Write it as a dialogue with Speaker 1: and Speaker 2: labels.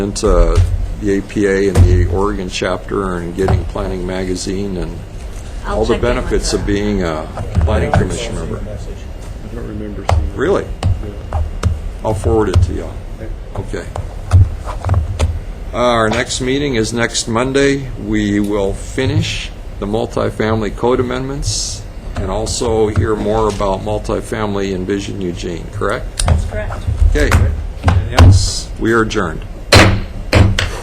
Speaker 1: It's, uh, the APA and the Oregon chapter and getting Planning Magazine and
Speaker 2: I'll
Speaker 1: all the
Speaker 2: check in with
Speaker 1: benefits
Speaker 2: her.
Speaker 1: of being a planning commission member.
Speaker 3: I don't remember seeing that.
Speaker 1: Really? I'll forward it to y'all. Okay. Uh, Our next meeting is next Monday. We will finish the multifamily code amendments and also hear more about multifamily in Vision Eugene, correct?
Speaker 2: That's correct.
Speaker 1: Okay. Anything else? We are adjourned.